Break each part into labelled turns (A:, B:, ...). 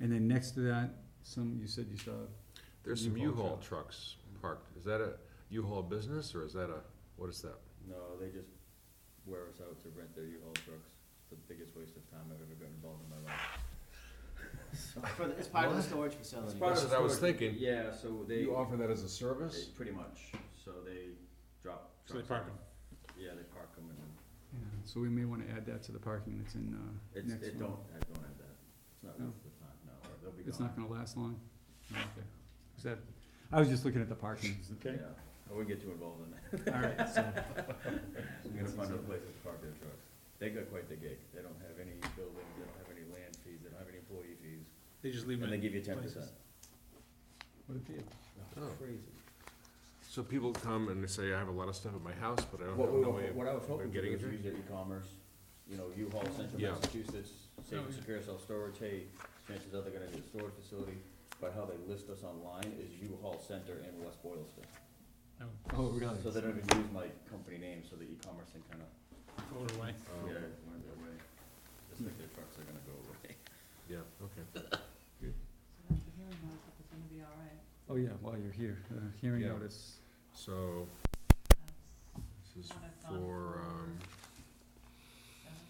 A: And then next to that, some, you said you saw,
B: There's some
A: U-Haul
B: U-Haul trucks parked. Is that a U-Haul business or is that a, what is that?
C: No, they just wear us out to rent their U-Haul trucks. It's the biggest waste of time I've ever gotten involved in my life. So- uh,
D: For the, it's part of the
B: What?
D: storage facility.
B: part That's of- what I was
C: storage-
B: thinking.
C: Yeah, so they,
B: You offer that as a
C: they-
B: service?
C: pretty much, so they drop.
A: So they park
C: trucks off. Yeah, they park them and then,
A: yeah, so we may wanna add that to the parking that's in, uh,
C: it's,
A: next
C: it
A: one.
C: don't, I don't have that. It's not
A: No.
C: worth the time, no, or they'll be gone.
A: It's not gonna last long? Oh, Okay. Is that, I was just looking at the parking.
C: Yeah, I wouldn't get too involved in that.
A: Alright, so,
C: I'm gonna find a place to park their trucks. They got quite the gig. They don't have any buildings, they don't have any land fees, they don't have any employee fees.
E: They just leave
C: And
E: it,
C: they give you ten percent.
A: what a deal.
B: Oh.
C: Crazy.
B: So people come and they say, I have a lot of stuff at my house, but I don't
C: What,
B: have
C: we
B: no
C: were-
B: way of.
C: what I was hoping to do
B: getting
C: is
B: it.
C: use their e-commerce, you know, U-Haul, Central
B: Yeah.
C: Massachusetts, safe
E: Oh,
C: and
E: yeah.
C: secure self-storage, hey, chances are they're gonna need a storage facility. But how they list us online is U-Haul Center in West Boylston.
A: Oh, really?
C: So they don't even use my company name, so the e-commerce thing kinda,
E: throw it away.
B: Oh,
C: yeah, it went their way. Just like their trucks are gonna go away.
B: Yeah, okay.
F: So that's the hearing notice, if it's gonna be all right.
A: Oh, yeah, while you're here, uh, hearing
B: Yeah.
A: notice.
B: So
F: That's-
B: this is
F: Not a
B: for,
F: fun floor.
B: um,
F: that's-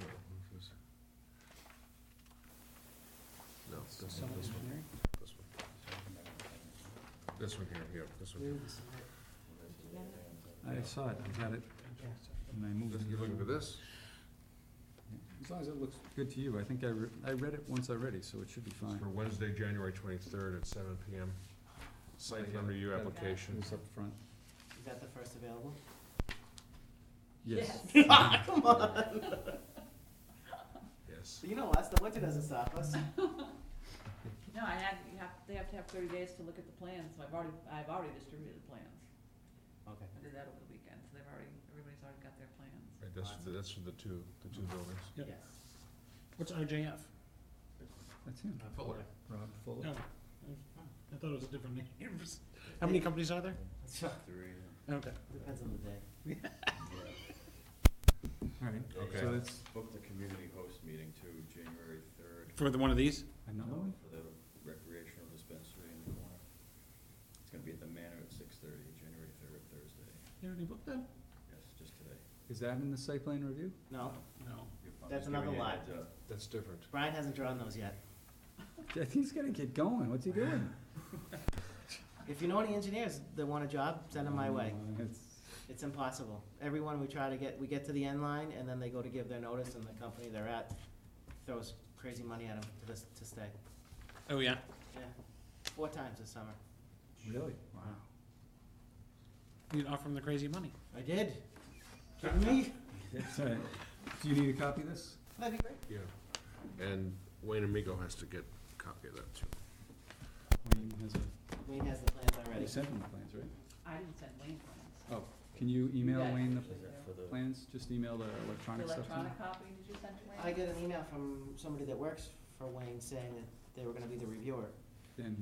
B: no, this is- no, this one, this one, this one. This one here, yeah, this one. here.
A: I saw it, I had it, and I moved
B: This-
A: it.
B: You're looking for this?
A: As long as it looks good to you, I think I re- I read it once already, so it should be
B: It's
A: fine.
B: for Wednesday, January twenty-third at seven PM. Site plan review
A: Yeah.
B: application.
A: It's up front.
D: Is that the first available?
A: Yes.
D: Come on.
B: Yes.
D: You know us, the winter doesn't stop us.
F: No, I had, you have, they have to have thirty days to look at the plans, so I've already, I've already distributed the plans.
D: Okay.
F: I did that over the weekend, so they've already, everybody's already got their plans.
B: Right, that's, for the- that's for the two, the two buildings.
E: Yep.
D: Yes.
E: What's RJF?
A: That's him,
B: Fuller.
A: Rob Fuller.
E: No, I thought it was a different name. How many companies are there?
C: Three,
E: Okay.
D: Depends on the day.
C: yeah.
A: All right,
B: Okay.
A: so that's
C: Booked a community host meeting too, January third.
E: For the one of these?
A: another one?
C: For the recreational dispensary in the corner. It's gonna be at the manor at six thirty, January third, Thursday.
E: You already booked that?
C: Yes, just today.
A: Is that in the site plan review?
D: No,
E: No.
C: You're fine.
D: That's
C: Just giving
D: another
C: you a
D: lie.
C: heads up.
B: That's different.
D: Brian hasn't drawn those yet.
A: He's gonna get going, what's he doing?
D: If you know any engineers that want a job, send them my way.
A: Uh, it's-
D: It's impossible. Everyone we try to get, we get to the end line and then they go to give their notice and the company they're at throws crazy money at them to this, to stay.
E: Oh, yeah.
D: Yeah. Four times this summer.
A: Really? Wow.
E: You can offer them the crazy money.
D: I did. Kidding me?
A: All right. Do you need a copy of this?
D: That'd be great.
B: Yeah, and Wayne Amigo has to get a copy of that too.
A: Wayne has a,
D: Wayne has the plans
A: you
D: already.
A: sent him the plans, right?
F: I didn't send Wayne plans.
A: Oh, can you email
F: Yeah.
A: Wayne
C: Is that for
A: the
C: the,
A: plans? Just email the
F: The
A: electronic stuff to him?
F: electronic copy, did you send to Wayne?
D: I got an email from somebody that works for Wayne saying that they were gonna be the reviewer.
A: Then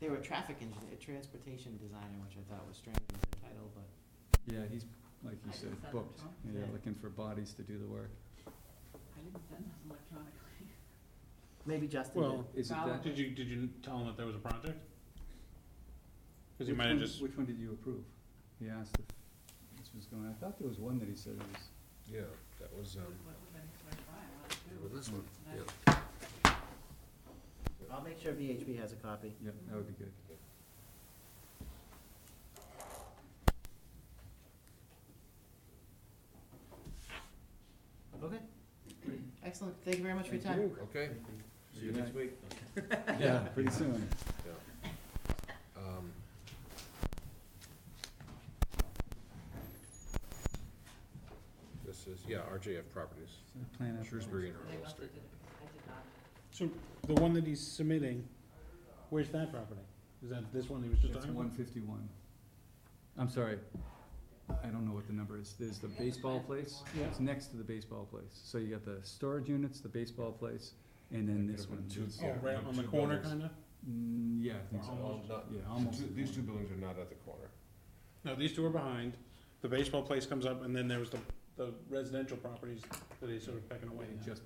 D: They were a traffic engineer, transportation designer, which I thought was strange as their title, but
A: he, yeah, he's, like you
F: I
A: said,
F: can send it
A: booked.
F: to
A: Yeah,
D: Yeah.
A: looking for bodies to do the work.
F: I didn't send those electronically.
D: maybe Justin did.
E: Well,
A: Is it
F: Well,
A: that?
E: did you, did you tell them that there was a project? Cause you
A: Which
E: might
A: one-
E: have just,
A: Which one did you approve? He asked if this was going, I thought there was one that he said was,
B: Yeah, that was, um,
F: What would have been for Brian, what to do?
B: with this one, yeah.
D: I'll make sure VHB has a copy.
A: yeah, that would be good.
D: Okay. Excellent. Thank you very much for your
A: Thank
D: time.
A: you.
B: Okay,
C: see you next week.
A: Yeah, pretty soon.
B: yeah. Um, This is, yeah, RJF Properties,
A: Plan out.
B: Shrewsbury and
F: They
B: Earl
F: must
B: Street.
F: have did, it. I did not.
E: so the one that he's submitting, where's that property? Is that this one he was just
A: That's
E: talking
A: one
E: about?
A: fifty-one. I'm sorry, I don't know what the number is. There's the baseball place,
E: Yeah.
A: it's next to the baseball place. So you got the storage units, the baseball place, and then
B: Like
A: this
B: different
A: one.
B: two-
A: It's-
E: Oh,
B: Yeah,
E: right
B: one,
E: on the
B: two
E: corner
B: buildings.
E: kinda?
A: Mm, Yeah, I think so.
E: Almost.
B: Not-
A: Yeah,
B: the
A: almost.
B: Um, two- These two buildings are not at the corner.
E: No, these two are behind. The baseball place comes up and then there was the, the residential properties that he's sort of pecking away
A: Just